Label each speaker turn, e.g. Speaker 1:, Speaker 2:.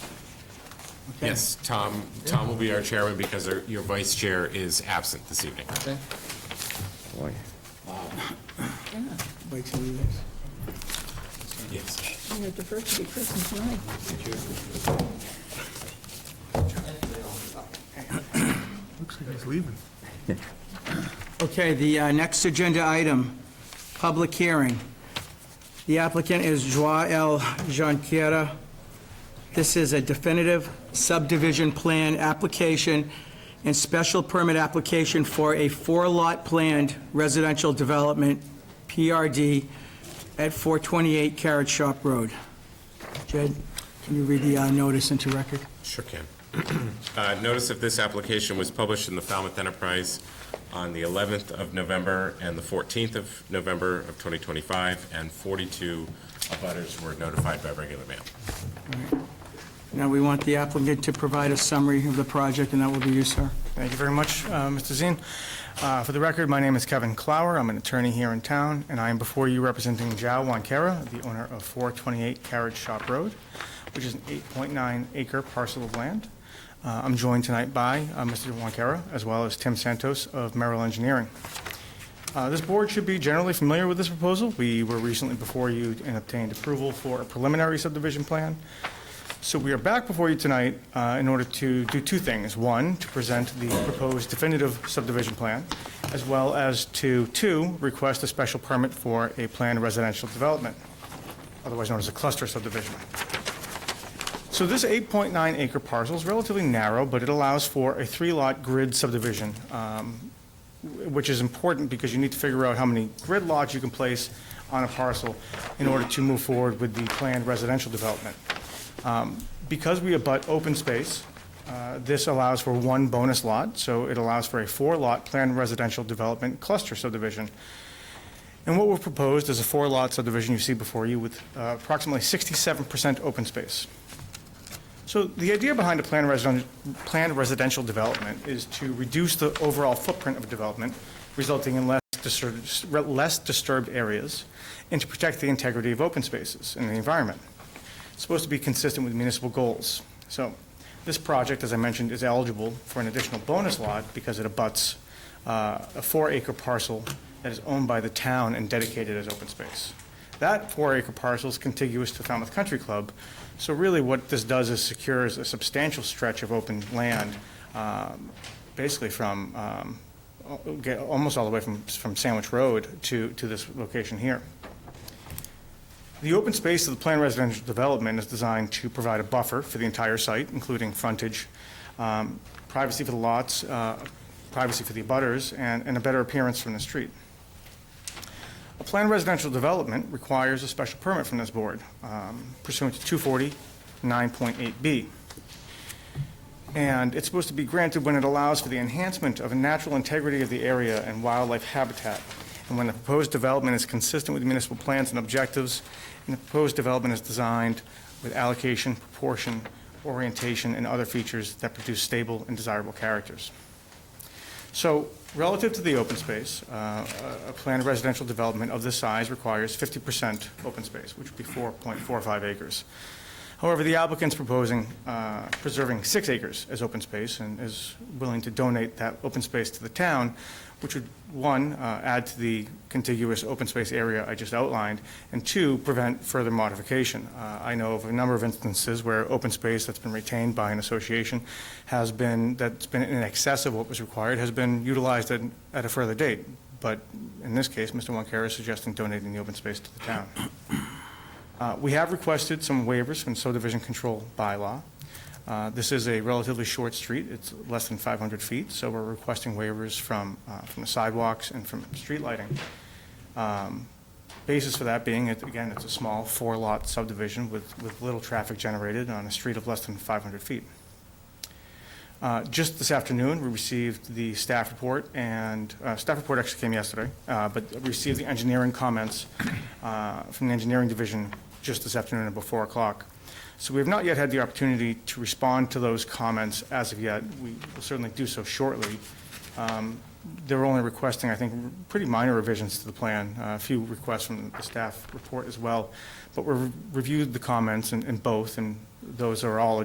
Speaker 1: Yes, Tom, Tom will be our chairman because our- your vice chair is absent this evening.
Speaker 2: Okay.
Speaker 3: Boy.
Speaker 2: Wait till you guys.
Speaker 1: Yes.
Speaker 4: Your diversity Christmas night.
Speaker 5: Looks like he's leaving.
Speaker 2: Okay, the uh, next agenda item, public hearing. The applicant is Joao Jonquera. This is a definitive subdivision plan application and special permit application for a four-lot planned residential development, PRD, at 428 Carrot Shop Road. Jed, can you read the uh, notice into record?
Speaker 1: Sure can. Uh, Notice of this application was published in the Falmouth Enterprise on the 11th of November and the 14th of November of 2025, and 42 abutters were notified by regular mail.
Speaker 2: Now, we want the applicant to provide a summary of the project, and that will be you, sir.
Speaker 6: Thank you very much, uh, Mr. Zine. Uh, For the record, my name is Kevin Clower. I'm an attorney here in town, and I am before you representing Jao Wankera, the owner of 428 Carriage Shop Road, which is an 8.9 acre parcel of land. Uh, I'm joined tonight by uh, Mr. Wankera, as well as Tim Santos of Merrill Engineering. Uh, This board should be generally familiar with this proposal. We were recently before you and obtained approval for a preliminary subdivision plan. So we are back before you tonight uh, in order to do two things. One, to present the proposed definitive subdivision plan, as well as to, two, request a special permit for a planned residential development, otherwise known as a cluster subdivision. So this 8.9 acre parcel is relatively narrow, but it allows for a three-lot grid subdivision, um, which is important because you need to figure out how many grid lots you can place on a parcel in order to move forward with the planned residential development. Um, Because we abut open space, uh, this allows for one bonus lot, so it allows for a four-lot planned residential development cluster subdivision. And what we've proposed is a four-lot subdivision you see before you with uh, approximately 67% open space. So the idea behind a planned residential, planned residential development is to reduce the overall footprint of development, resulting in less disturbed, less disturbed areas, and to protect the integrity of open spaces and the environment. It's supposed to be consistent with municipal goals. So this project, as I mentioned, is eligible for an additional bonus lot because it abuts uh, a four-acre parcel that is owned by the town and dedicated as open space. That four-acre parcel is contiguous to Falmouth Country Club, so really what this does is secures a substantial stretch of open land, um, basically from, um, al- get- almost all the way from from Sandwich Road to to this location here. The open space of the planned residential development is designed to provide a buffer for the entire site, including frontage, um, privacy for the lots, uh, privacy for the abutters, and and a better appearance from the street. A planned residential development requires a special permit from this board um, pursuant to 240 9.8B. And it's supposed to be granted when it allows for the enhancement of a natural integrity of the area and wildlife habitat, and when the proposed development is consistent with municipal plans and objectives, and the proposed development is designed with allocation, proportion, orientation, and other features that produce stable and desirable characters. So relative to the open space, uh, a a planned residential development of this size requires 50% open space, which would be 4.45 acres. However, the applicant's proposing uh, preserving six acres as open space and is willing to donate that open space to the town, which would, one, uh, add to the contiguous open space area I just outlined, and two, prevent further modification. Uh, I know of a number of instances where open space that's been retained by an association has been, that's been in excess of what was required, has been utilized at at a further date. But in this case, Mr. Wankera is suggesting donating the open space to the town. Uh, We have requested some waivers from subdivision control bylaw. Uh, This is a relatively short street, it's less than 500 feet, so we're requesting waivers from, uh, from the sidewalks and from street lighting. Um, Basis for that being, it- again, it's a small four-lot subdivision with, with little traffic generated on a street of less than 500 feet. Uh, Just this afternoon, we received the staff report, and, uh, staff report actually came yesterday, uh, but received the engineering comments uh, from the engineering division just this afternoon about 4 o'clock. So we have not yet had the opportunity to respond to those comments as of yet. We will certainly do so shortly. Um, They're only requesting, I think, pretty minor revisions to the plan, uh, a few requests from the staff report as well. But we reviewed the comments in in both, and those are all